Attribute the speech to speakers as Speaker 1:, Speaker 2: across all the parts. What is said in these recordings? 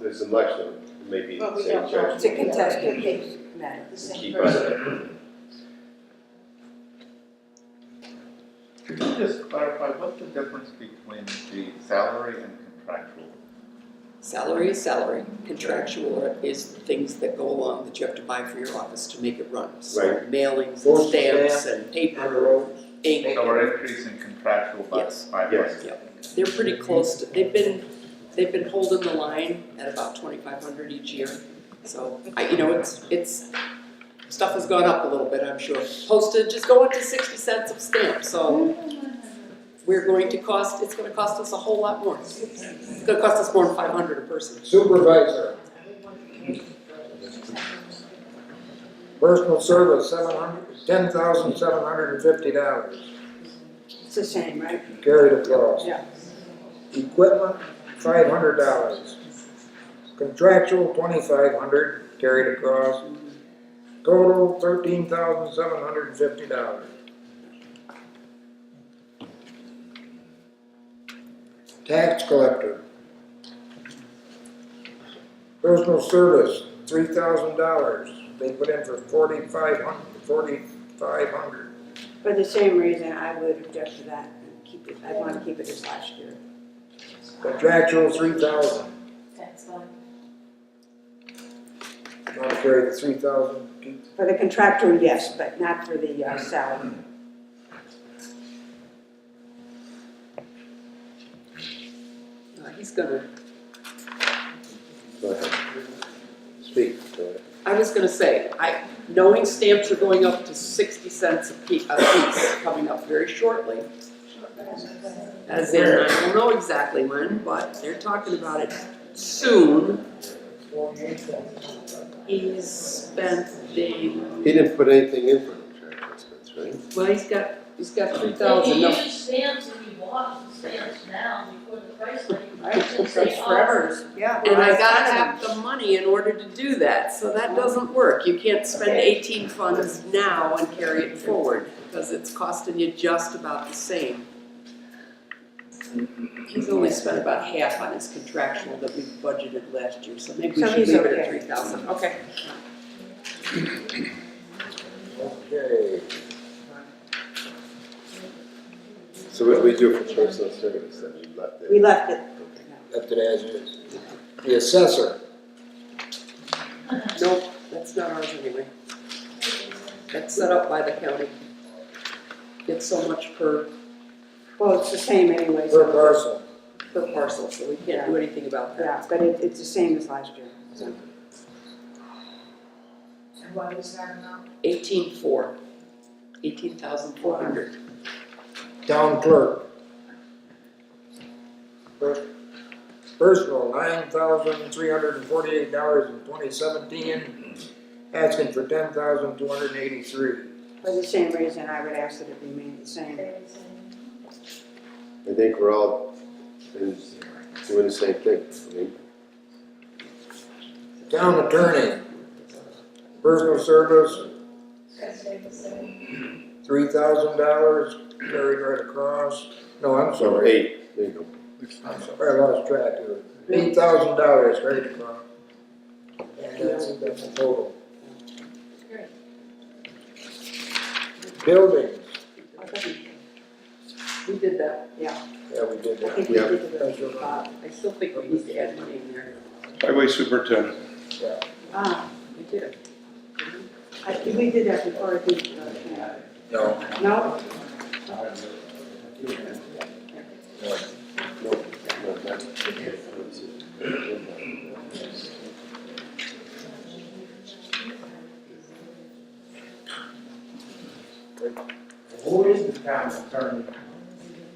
Speaker 1: there's an election, it may be
Speaker 2: But
Speaker 1: the
Speaker 2: we
Speaker 1: same
Speaker 2: don't know.
Speaker 1: judge.
Speaker 3: It's a contested case
Speaker 2: matter, the same
Speaker 1: Keep
Speaker 2: person.
Speaker 1: us.
Speaker 4: Could you just clarify what the difference between the salary and contractual?
Speaker 5: Salary is salary, contractual is things that go along that you have to buy for your office to make it run. So
Speaker 1: Right.
Speaker 5: Mailings,
Speaker 6: Postal
Speaker 5: and stamps and paper, ink,
Speaker 4: So we're increasing contractual by
Speaker 5: Yes.
Speaker 4: five
Speaker 1: Yes.
Speaker 4: percent.
Speaker 5: they're pretty close to, they've been, they've been holding the line at about twenty-five hundred each year. So, I, you know, it's, it's, stuff has gone up a little bit, I'm sure. Postage is going to sixty cents of stamp, so we're going to cost, it's gonna cost us a whole lot more. It's gonna cost us more than five hundred a person.
Speaker 6: Supervisor. Personal service, seven hundred, ten thousand seven hundred and fifty dollars,
Speaker 3: It's the same, right?
Speaker 6: carried across.
Speaker 3: Yeah.
Speaker 6: Equipment, five hundred dollars. Contractual, twenty-five hundred, carried across. Total, thirteen thousand seven hundred and fifty dollars. Tax collector. Personal service, three thousand dollars, they put in for forty-five hundred, forty-five hundred.
Speaker 3: For the same reason, I would object to that and keep it, I wanna keep it as last year.
Speaker 6: Contractual, three thousand,
Speaker 2: That's fine.
Speaker 6: want to carry the three thousand, keep
Speaker 3: For the contractor, yes, but not for the uh, salary.
Speaker 5: Uh, He's gonna,
Speaker 1: Go ahead. Speak, go ahead.
Speaker 5: I was gonna say, I, knowing stamps are going up to sixty cents a piece, a piece coming up very shortly. As in, I don't know exactly when, but they're talking about it soon. He's spending,
Speaker 1: He didn't put anything in for contractual expense, right?
Speaker 5: well, he's got, he's got three
Speaker 7: If
Speaker 5: thousand,
Speaker 7: you
Speaker 5: no,
Speaker 7: use stamps and you bought the stamps now before the price went,
Speaker 3: Right,
Speaker 7: you should
Speaker 3: it's
Speaker 7: say, oh,
Speaker 3: forever, yeah.
Speaker 5: and I gotta have the money in order to do that, so that doesn't work. You can't spend eighteen funds now and carry it forward, because it's costing you just about the same. He's only spent about half on his contractual that we budgeted last year, so maybe we
Speaker 3: So
Speaker 5: should
Speaker 3: he's
Speaker 5: leave it
Speaker 3: okay.
Speaker 5: at three thousand. Okay.
Speaker 6: okay.
Speaker 1: So what do we do for personal service, that we left
Speaker 3: We
Speaker 1: it?
Speaker 3: left it,
Speaker 6: left it as is. The assessor,
Speaker 5: Nope, that's not ours anyway. That's set up by the county. It's so much per,
Speaker 3: well, it's the same anyway,
Speaker 6: per
Speaker 3: so,
Speaker 6: parcel,
Speaker 5: per parcel, so we can't do anything about that.
Speaker 3: yeah, but it, it's the same as last year.
Speaker 2: And why was that amount?
Speaker 5: Eighteen four, eighteen thousand four hundred.
Speaker 6: town clerk. Per- Personal, nine thousand three hundred and forty-eight dollars in twenty seventeen, asking for ten thousand two hundred and eighty-three.
Speaker 3: For the same reason, I would ask that it remain the same.
Speaker 1: I think we're all in- doing the same thing. I mean,
Speaker 6: Town attorney, personal service, three thousand dollars carried right across, no, I'm
Speaker 1: So
Speaker 6: sorry,
Speaker 1: eight, there you go.
Speaker 6: I'm sorry, I lost track of it, eight thousand dollars carried across. And that's, that's the total. Buildings,
Speaker 3: I think
Speaker 5: We did that, Uh,
Speaker 6: yeah, we did
Speaker 3: I
Speaker 6: that,
Speaker 3: think we
Speaker 1: Yeah.
Speaker 3: did it
Speaker 6: That's your
Speaker 3: with
Speaker 6: line.
Speaker 3: Bob.
Speaker 5: I still think we need to add money in there.
Speaker 8: Highway superintendent.
Speaker 6: yeah.
Speaker 3: Ah,
Speaker 5: We did it.
Speaker 3: I, think we did that before, I think, uh,
Speaker 6: No.
Speaker 3: no?
Speaker 1: No, that-
Speaker 9: Who is the town attorney?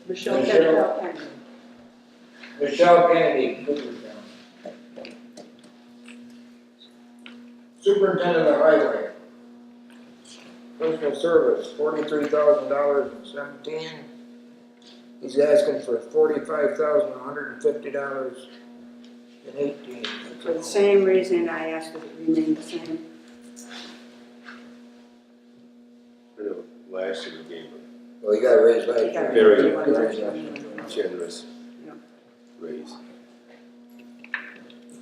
Speaker 5: Michelle
Speaker 6: Michelle.
Speaker 5: Kennedy.
Speaker 9: Michelle Kennedy, Cooperstown.
Speaker 6: Superintendent of highway. Personal service, forty-three thousand dollars and seventeen. He's asking for forty-five thousand one hundred and fifty dollars and eighteen.
Speaker 3: For the same reason I asked that it remain the same.
Speaker 1: I know, last year we gave him
Speaker 6: Well, you gotta raise
Speaker 3: I think I
Speaker 6: that.
Speaker 1: Very
Speaker 3: remember one last year.
Speaker 1: a generous
Speaker 3: Yeah.
Speaker 1: raise.